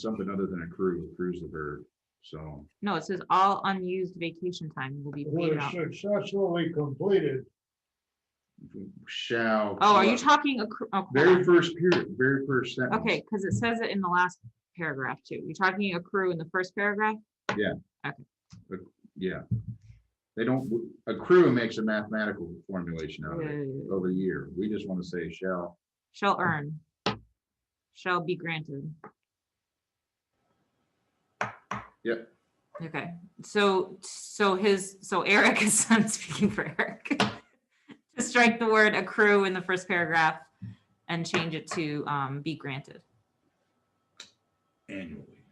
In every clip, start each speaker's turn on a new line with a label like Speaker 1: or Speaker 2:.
Speaker 1: something other than a cruise, cruise the verb, so.
Speaker 2: No, it says all unused vacation time will be paid
Speaker 3: Were
Speaker 2: out.
Speaker 3: successfully completed,
Speaker 1: Shall.
Speaker 2: Oh, are you talking? accru- oh, hold
Speaker 1: Very
Speaker 2: on.
Speaker 1: first period, very first sentence.
Speaker 2: Okay, because it says it in the last paragraph too. You're talking accrue in the first paragraph?
Speaker 1: Yeah. They don't, accrue makes a mathematical formulation out of it,
Speaker 2: Uh,
Speaker 1: over the year. We just want to say shall.
Speaker 2: Shall earn. Shall be granted.
Speaker 1: Yep.
Speaker 2: Okay, so, so his, so Eric is, I'm speaking for Eric. To strike the word accrue in the first paragraph and change it to um, be granted.
Speaker 1: annually.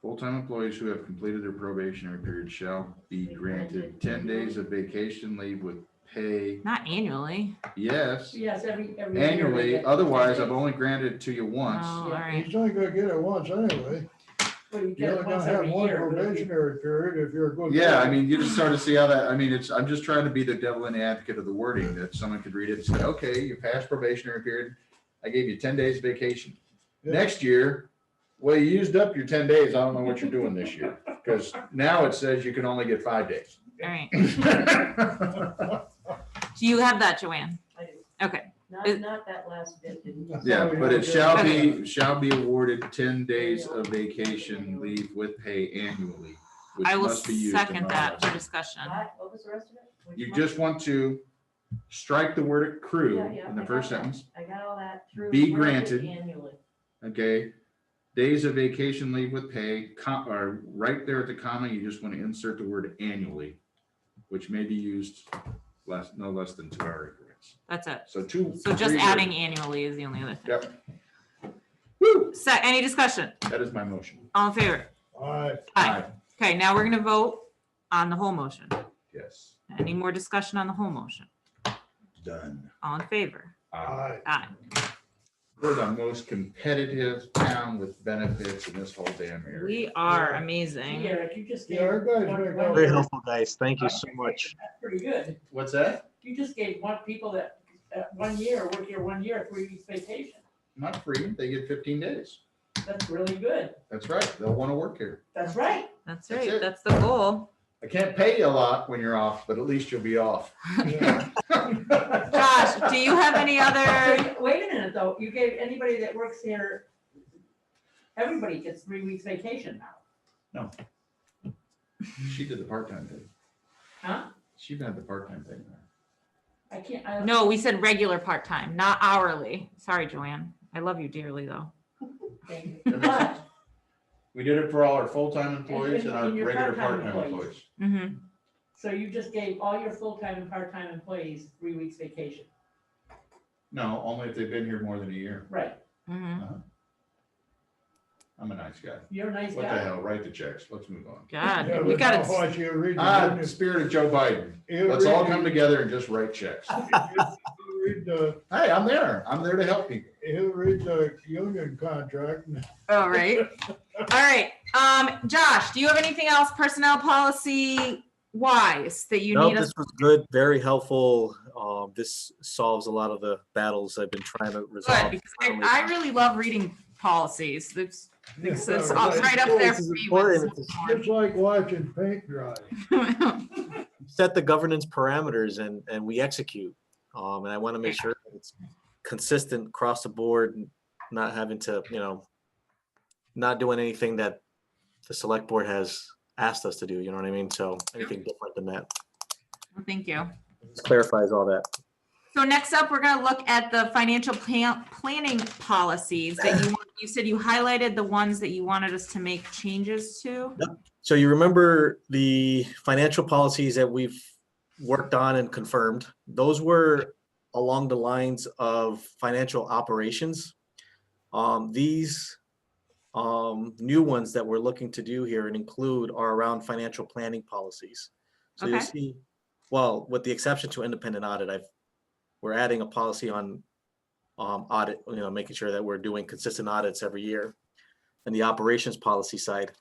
Speaker 1: Full-time employees who have completed their probationary period shall be granted ten days of vacation leave with pay,
Speaker 2: Not annually.
Speaker 1: yes,
Speaker 4: Yes, every, every. year we
Speaker 1: annually,
Speaker 4: get-
Speaker 1: otherwise I've only granted it to you once.
Speaker 2: Oh, all
Speaker 4: Yeah.
Speaker 2: right.
Speaker 3: he's only gonna get it once anyway.
Speaker 4: Well, you
Speaker 3: You're
Speaker 4: get it
Speaker 3: only gonna
Speaker 4: once
Speaker 3: have
Speaker 4: every
Speaker 3: one
Speaker 4: year. but if you-
Speaker 3: probationary period if you're going.
Speaker 1: Yeah, I mean, you just sort of see how that, I mean, it's, I'm just trying to be the devil in the advocate of the wording, that someone could read it and say, okay, you passed probationary period, I gave you ten days vacation.
Speaker 3: Yeah.
Speaker 1: Next year, well, you used up your ten days, I don't know what you're doing this year, because now it says you can only get five days.
Speaker 2: All right. Do you have that, Joanne?
Speaker 4: I do.
Speaker 2: Okay,
Speaker 4: Not,
Speaker 2: It-
Speaker 4: not that last bit, didn't you?
Speaker 1: Yeah, but it shall be, shall be awarded ten days of vacation leave with pay annually, which
Speaker 2: I will
Speaker 1: must be used. in
Speaker 2: second
Speaker 1: all
Speaker 2: that for
Speaker 1: aspects.
Speaker 2: discussion.
Speaker 4: What what was the rest of it? Which
Speaker 1: You
Speaker 4: month?
Speaker 1: just want to strike the word accrue
Speaker 4: Yeah, yeah,
Speaker 1: in
Speaker 4: I
Speaker 1: the
Speaker 4: got
Speaker 1: first
Speaker 4: that.
Speaker 1: sentence.
Speaker 4: I got all that through.
Speaker 1: Be
Speaker 4: granted
Speaker 1: granted.
Speaker 4: Annually.
Speaker 1: Okay, days of vacation leave with pay, com, or right there at the comma, you just want to insert the word annually, which may be used less, no less than two hour increments.
Speaker 2: That's it.
Speaker 1: So two.
Speaker 2: So just
Speaker 1: three
Speaker 2: adding
Speaker 1: words.
Speaker 2: annually is the only other thing.
Speaker 1: Yep. Woo,
Speaker 2: So any discussion?
Speaker 1: that is my motion.
Speaker 2: All in favor?
Speaker 3: Aye,
Speaker 2: Aye. Okay, now we're gonna vote on the whole motion.
Speaker 1: Yes,
Speaker 2: Any more discussion on the whole motion?
Speaker 1: done.
Speaker 2: All in favor?
Speaker 1: Aye.
Speaker 3: aye.
Speaker 2: Aye.
Speaker 1: We're the most competitive town with benefits in this whole damn area.
Speaker 2: We are
Speaker 3: Yeah.
Speaker 2: amazing.
Speaker 4: Eric, you just.
Speaker 3: Yeah,
Speaker 4: gave
Speaker 3: our guys
Speaker 4: one-
Speaker 3: make
Speaker 4: one
Speaker 3: all
Speaker 5: Very
Speaker 4: year.
Speaker 5: helpful, guys. Thank you so much.
Speaker 4: That's Pretty good.
Speaker 1: What's that?
Speaker 4: You just gave one people that, that one year, work here one year, three weeks vacation.
Speaker 1: Not free, they get fifteen days.
Speaker 4: That's really good.
Speaker 1: That's right, they'll want to work here.
Speaker 4: That's right.
Speaker 2: That's
Speaker 1: That's
Speaker 2: right.
Speaker 1: it.
Speaker 2: That's the goal.
Speaker 1: I can't pay you a lot when you're off, but at least you'll be off.
Speaker 3: Yeah.
Speaker 2: Josh, do you have any other?
Speaker 4: Wait- Wait a minute, though. You gave anybody that works here, everybody gets three weeks vacation now,
Speaker 1: She did the part-time thing.
Speaker 4: huh?
Speaker 1: She did the part-time thing.
Speaker 4: I can't, I.
Speaker 2: No, we said regular part-time, not hourly. Sorry, Joanne. I love you dearly, though.
Speaker 4: Thank
Speaker 1: That
Speaker 4: you.
Speaker 1: makes
Speaker 4: But
Speaker 1: sense. We did it for all our full-time employees and our
Speaker 4: And your
Speaker 1: regular
Speaker 4: part-time
Speaker 1: part-time
Speaker 4: employees.
Speaker 1: employees.
Speaker 2: Mm-hmm.
Speaker 4: So you just gave all your full-time and part-time employees three weeks vacation,
Speaker 1: No, only if they've been here more than a year.
Speaker 4: right?
Speaker 2: Mm-hmm.
Speaker 1: I'm a nice guy.
Speaker 4: You're a nice
Speaker 1: What the
Speaker 4: guy.
Speaker 1: hell? Write the checks. Let's move on.
Speaker 3: Yeah,
Speaker 2: God, we
Speaker 3: but
Speaker 2: got
Speaker 3: now
Speaker 2: it.
Speaker 3: watch you read the
Speaker 1: Ah, the
Speaker 3: union-
Speaker 1: spirit of Joe Biden.
Speaker 3: you
Speaker 1: Let's all
Speaker 3: read-
Speaker 1: come together and just write checks.
Speaker 3: you Read the,
Speaker 1: Hey, I'm there. I'm there to help people.
Speaker 3: you read the union contract and
Speaker 2: All Oh, right. All right. Um, Josh, do you have anything else personnel policy wise that you
Speaker 5: No,
Speaker 2: need us?
Speaker 5: this was good, very helpful. Um, this solves a lot of the battles I've been trying to
Speaker 2: Good,
Speaker 5: resolve.
Speaker 2: because I, I really love reading policies. It's, it's, it's
Speaker 3: Yeah, right.
Speaker 2: right up there
Speaker 5: This
Speaker 2: for
Speaker 5: is
Speaker 2: me.
Speaker 5: important.
Speaker 2: with
Speaker 3: It's like watching paint dry.
Speaker 2: Saltmore.
Speaker 5: Set the governance parameters and, and we execute. Um, and I want to make sure that it's consistent across the board, and not having to, you know, not doing anything that the select board has asked us to do, you know what I mean? So anything different than that.
Speaker 2: Well, Thank you.
Speaker 5: This clarifies all that.
Speaker 2: So next up, we're gonna look at the financial plan, planning policies that you, want- you said you highlighted the ones that you wanted us to make changes to.
Speaker 5: So you remember the financial policies that we've worked on and confirmed, those were along the lines of financial operations. Um, these um, new ones that we're looking to do here and include are around financial planning policies. So you'll
Speaker 2: Okay.
Speaker 5: see, well, with the exception to independent audit, I've, we're adding a policy on um, audit, you know, making sure that we're doing consistent audits every year and the operations policy side.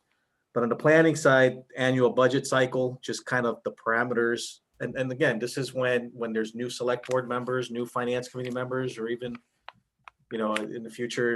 Speaker 5: But on the planning side, annual budget cycle, just kind of the parameters. And, and again, this is when, when there's new select board members, new finance committee members, or even you know, in the future,